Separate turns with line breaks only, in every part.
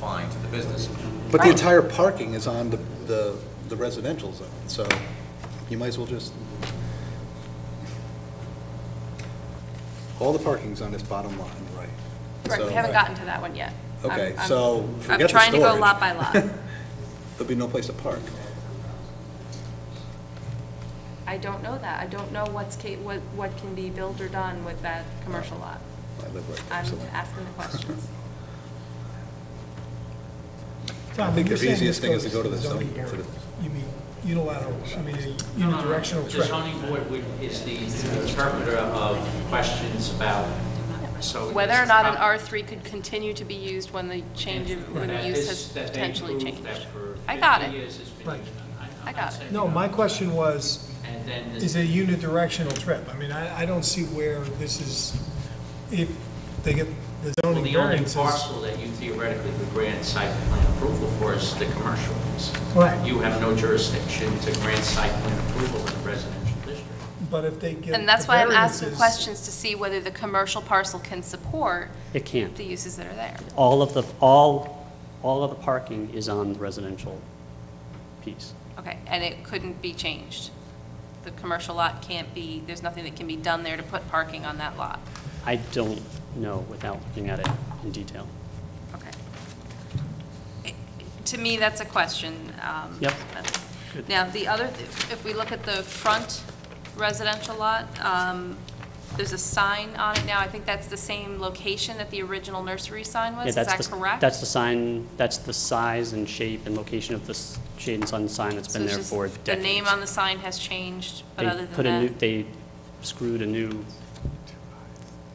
fine to the business.
But the
Right.
entire parking is on the, the the residential zone, so you might as well just, all the parking's on this bottom line, right?
Right, we
So- uh,
haven't gotten to that one yet. I'm-
Okay,
I'm-
so forget the
I'm trying to go
storage.
lot by lot.
There'll be no place to park.
I don't know that. I don't know what's, ca- what, what can be built or done with that commercial lot.
I live right there,
I'm
so-
asking the questions.
I
Tom,
think
when you're
the
saying
easiest
this
thing is to
goes
go to the
zoning
zone- to
area,
the-
You mean unilateral, I mean, a
No, no, no.
unidirectional
The
track?
zoning board would- is the interpreter of questions about, so.
Whether or not an R3 could continue to be used when the change, of- when the
That
use
is-
has
that they
potentially
proved
changed.
that for
I got
50
it.
years it's been
Right.
used. I'm
I
not
got it.
saying
No, my question was,
And then this-
is it a unidirectional trip? I mean, I, I don't see where this is, if they get the
well,
zoning
the only
variances.
parcel that you theoretically could grant site plan approval for is the commercial piece.
Right.
You have no jurisdiction to grant site plan approval in a residential district.
But if they get.
And that's
the
why I'm asking
variances-
questions to see whether the commercial parcel can support
It can't.
the uses that are there.
All of the, all, all of the parking is on the residential piece.
Okay, and it couldn't be changed. The commercial lot can't be, there's nothing that can be done there to put parking on that lot.
I don't know without looking at it in detail.
Okay. It- To me, that's a question. um,
Yep.
that's-
Good.
Now, the other, th- if we look at the front residential lot, um, there's a sign on it now. I think that's the same location that the original nursery sign was.
Yeah,
Is
that's
that
the-
correct?
That's the sign, that's the size and shape and location of the s- Shade and Sun sign that's
So
been
it's
there
just
for
The
decades.
name on the sign has changed, but
They
other
put a new-
than that,
They screwed a new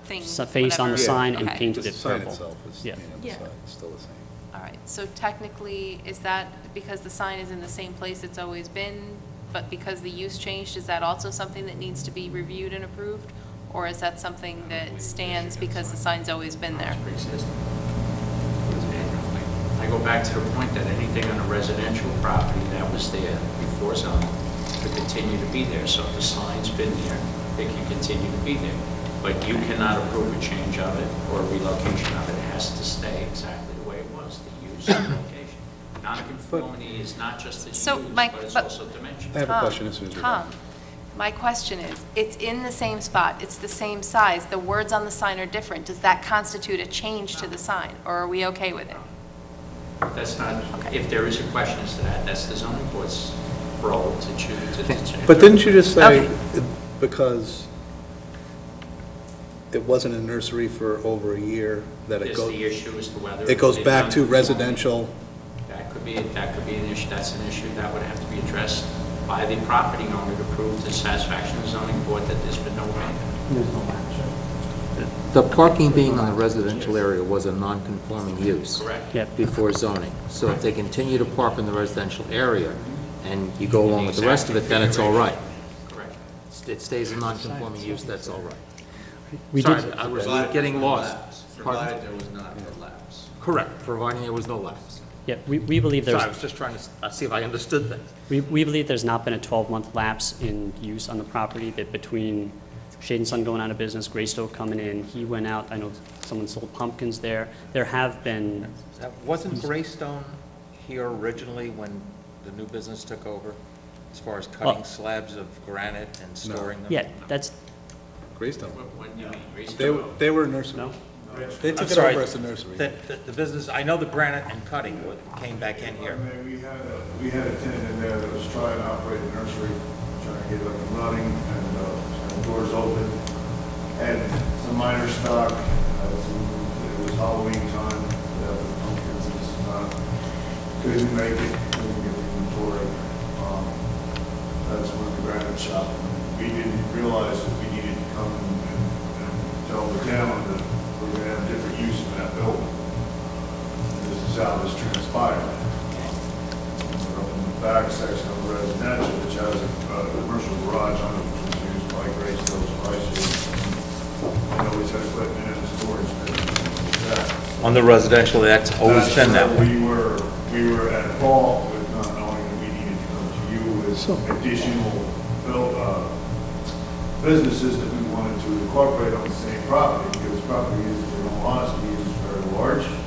thing,
s- face on the
whatever.
sign and
Okay.
painted
The
it
sign
purple.
itself is,
Yeah.
you know, the
Yeah.
sign is still the same.
All right, so technically, is that because the sign is in the same place it's always been, but because the use changed, is that also something that needs to be reviewed and approved? Or is that something that stands because the sign's always been there?
It's pre-existing. I go back to the point that anything on a residential property that was there before zoning could continue to be there. So if the sign's been there, it can continue to be there. But you cannot approve a change of it or relocation of it. It has to stay exactly the way it was, the use and location. Nonconformity is not just the
So,
use,
Mike,
but it's
but-
also dimension.
I have a
Tom,
question as soon as we're done.
Tom, my question is, it's in the same spot, it's the same size, the words on the sign are different. Does that constitute a change to the sign, or are we okay with it?
That's not,
Okay.
if there is a question as to that, that's the zoning board's role to choose to determine.
But didn't you just say,
Okay.
it- because it wasn't a nursery for over a year, that it
Is the
goes,
issue as to whether.
it goes
they've
back
done
to
it.
residential,
That could be, that could be an issue, that's an issue that would have to be addressed by the property owner to prove to satisfaction of the zoning board that there's been no abatement.
The parking being on the residential area was a non-conforming use.
Correct.
Yep.
Before zoning. So if they continue to park in the residential area and you go along with the rest of it, then it's all right.
Correct.
It stays a non-conforming use, that's all right.
We
Sorry,
did,
I was getting lost. Pardon?
there was not a lapse.
Correct, providing there was no lapse.
yeah, we, we believe
Sorry,
there's.
I was just trying to s- uh, see if I understood that.
We, we believe there's not been a 12-month lapse in use on the property, that between Shade and Sun going out of business, Greystoke coming in, he went out, I know someone sold pumpkins there. There have been,
Now, Wasn't Greystone here originally when the new business took over, as far as
Well-
cutting slabs of granite and storing them?
yeah, that's,
Greystone.
What, what do you mean, reason?
They, were- they were a nursery.
no?
They
I'm
took it
sorry,
over as a nursery.
The, the- the business, I know the granite and cutting wa- came back in here.
I mean, we had, a- we had a tenant in there that was trying to operate a nursery, trying to get it up and running, and, uh, and doors open, had some minor stock, uh, some- it was Halloween time, uh, the pumpkins, and just, uh, couldn't make it, couldn't get inventory. Um, That's when the granite shop, we didn't realize that we needed to come and, and- and tell the town that we're gonna have different use in that building. This is how this transpired up in the back section of residential, which has a uh, commercial garage on it, which is used by Graceville's prices. And always had equipment in the storage bin. That's-
On the residential, that's always been that
that's
way.
where We were, we were at fault with not knowing that we needed to come to you with additional built, uh, businesses that we wanted to incorporate on the same property, because property is, in all honesty, is very large.